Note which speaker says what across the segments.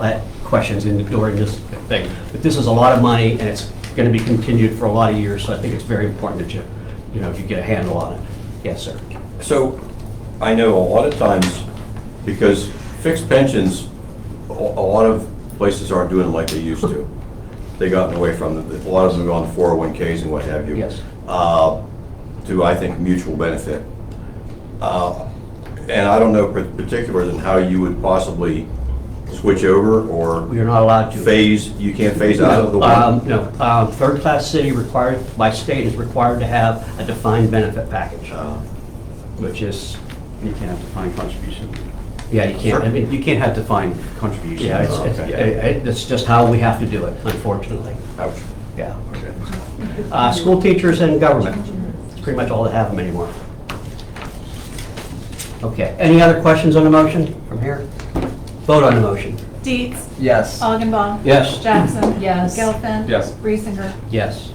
Speaker 1: that questions in the door and just thing. But this is a lot of money, and it's going to be continued for a lot of years, so I think it's very important that you, you know, you get a handle on it. Yes, sir.
Speaker 2: So, I know a lot of times, because fixed pensions, a a lot of places aren't doing them like they used to. They gotten away from them, a lot of them go on 401Ks and what have you.
Speaker 1: Yes.
Speaker 2: Uh, To, I think, mutual benefit. Uh, And I don't know par- particulars in how you would possibly switch over
Speaker 1: We
Speaker 2: or
Speaker 1: are not allowed to.
Speaker 2: phase, you can't phase out of the
Speaker 1: Um,
Speaker 2: one.
Speaker 1: No, um, third-class city required, by state is required to have a defined benefit package,
Speaker 2: Uh,
Speaker 1: which is, you can't have defined contribution. Yeah, you can't, I mean, you can't have defined,
Speaker 3: contribution.
Speaker 1: yeah, it's, it's-
Speaker 2: Okay.
Speaker 1: it- it's just how we have to do it, unfortunately.
Speaker 2: ouch.
Speaker 1: Yeah. Uh, School teachers and government, pretty much all that have them anymore. Okay, any other questions on the motion from here? Vote on the motion.
Speaker 4: Dietz.
Speaker 3: Yes.
Speaker 4: Uh, Augenbaum.
Speaker 1: Yes.
Speaker 4: Jackson.
Speaker 5: Yes.
Speaker 4: Gelfen.
Speaker 3: Yes.
Speaker 4: Reesinger.
Speaker 1: Yes.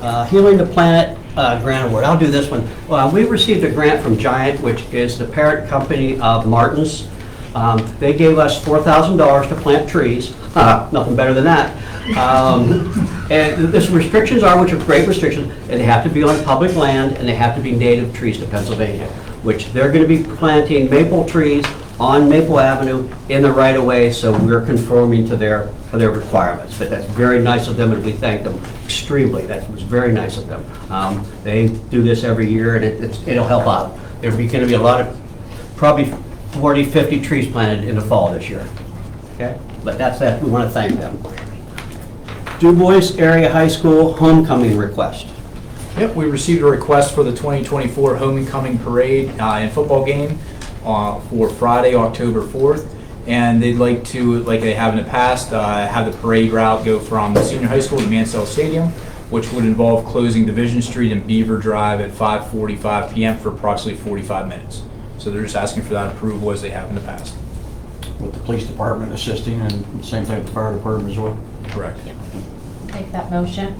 Speaker 1: Uh, Healing the Planet uh, Grant Award, I'll do this one. Well, We received a grant from Giant, which is the parent company of Martin's. Um, They gave us $4,000 to plant trees, Uh, nothing better than that. Um, And this restrictions are, which are great restrictions, and they have to be on public land, and they have to be native trees to Pennsylvania, which they're going to be planting maple trees on Maple Avenue in the right-of-way, so we're conforming to their, to their requirements. But that's very nice of them, and we thank them extremely. That was very nice of them. Um, They do this every year, and it- it's- it'll help out. There'll be going to be a lot of, probably 40, 50 trees planted in the fall this year. Okay? But that's that, we want to thank them. Du Bois Area High School homecoming request.
Speaker 6: Yep, we received a request for the 2024 Homecoming Parade uh, and football game uh, for Friday, October 4th. And they'd like to, like they have in the past, uh, have the parade route go from the senior high school to Mansell Stadium, which would involve closing Division Street and Beaver Drive at 5:45 PM for approximately 45 minutes. So they're just asking for that approval as they have in the past.
Speaker 7: with the police department assisting and same thing with the fire department as well.
Speaker 6: Correct.
Speaker 5: Make that motion.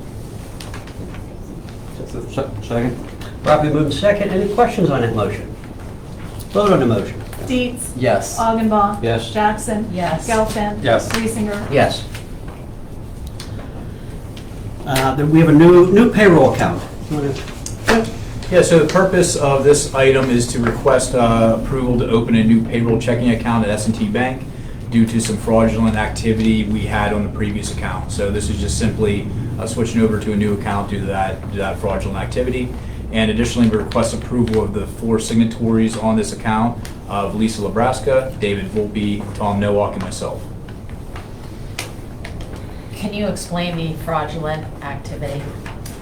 Speaker 7: Se- Second?
Speaker 1: Properly moved in second. Any questions on that motion? Vote on the motion.
Speaker 4: Dietz.
Speaker 3: Yes.
Speaker 4: Augenbaum.
Speaker 7: Yes.
Speaker 4: Jackson.
Speaker 5: Yes.
Speaker 4: Gelfen.
Speaker 3: Yes.
Speaker 4: Reesinger.
Speaker 1: Yes. Uh, Then we have a new, new payroll account. You wanna-
Speaker 6: Yeah, so the purpose of this item is to request uh, approval to open a new payroll checking account at s and T Bank due to some fraudulent activity we had on the previous account. So this is just simply uh, switching over to a new account due to that to that fraudulent activity. And additionally, we request approval of the four signatories on this account of Lisa Lebraska, David Volpe, Tom Nowak, and myself.
Speaker 5: Can you explain the fraudulent activity?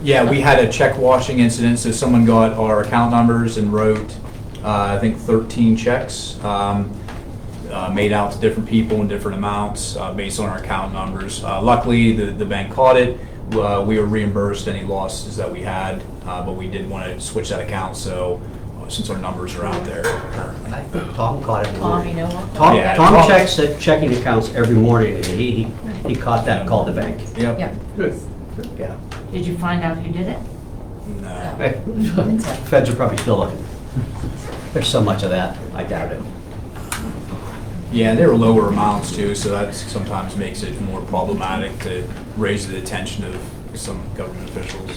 Speaker 6: Yeah, we had a check washing incident, so someone got our account numbers and wrote, uh, I think, 13 checks, um, uh, made out to different people in different amounts uh, based on our account numbers. Uh, Luckily, the the bank caught it. Uh, We were reimbursed any losses that we had, uh, but we did want to switch that account, so uh, since our numbers are out there.
Speaker 1: Tom caught it. in the
Speaker 5: Tom,
Speaker 1: morning.
Speaker 5: you know what?
Speaker 1: Tom,
Speaker 6: Yeah,
Speaker 1: Tom
Speaker 6: Tom-
Speaker 1: checks the checking accounts every morning, and he, he- he caught that, called the bank.
Speaker 6: Yep.
Speaker 5: Yeah.
Speaker 1: Yeah.
Speaker 5: Did you find out who did it?
Speaker 6: No.
Speaker 1: Feds are probably still looking. There's so much of that, I doubt it.
Speaker 6: Yeah, they were lower amounts too, so that sometimes makes it more problematic to raise the attention of some government officials.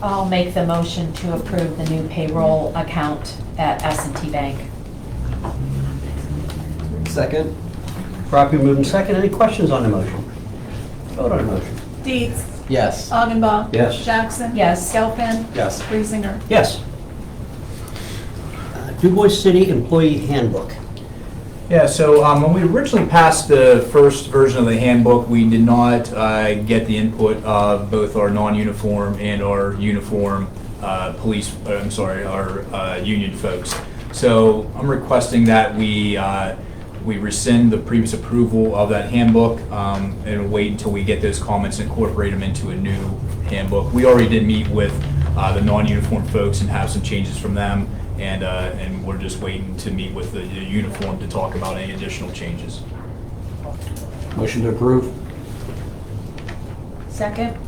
Speaker 5: I'll make the motion to approve the new payroll account at s and T Bank.
Speaker 3: Second?
Speaker 1: Properly moved in second. Any questions on the motion? Vote on the motion.
Speaker 4: Dietz.
Speaker 3: Yes.
Speaker 4: Augenbaum.
Speaker 1: Yes.
Speaker 4: Jackson.
Speaker 5: Yes.
Speaker 4: Gelfen.
Speaker 3: Yes.
Speaker 4: Reesinger.
Speaker 1: Yes. Uh, Du Bois City Employee Handbook.
Speaker 6: Yeah, so um, when we originally passed the first version of the handbook, we did not uh, get the input of both our non-uniform and our uniform uh, police, uh, I'm sorry, our uh, union folks. So I'm requesting that we, uh, we rescind the previous approval of that handbook um, and wait until we get those comments and incorporate them into a new handbook. We already did meet with uh, the non-uniform folks and have some changes from them, and, uh, and we're just waiting to meet with the the uniform to talk about any additional changes.
Speaker 7: Motion to approve?
Speaker 5: Second?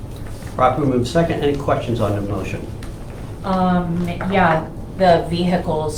Speaker 1: Properly moved in second. Any questions on the motion?
Speaker 5: Um, yeah, the vehicles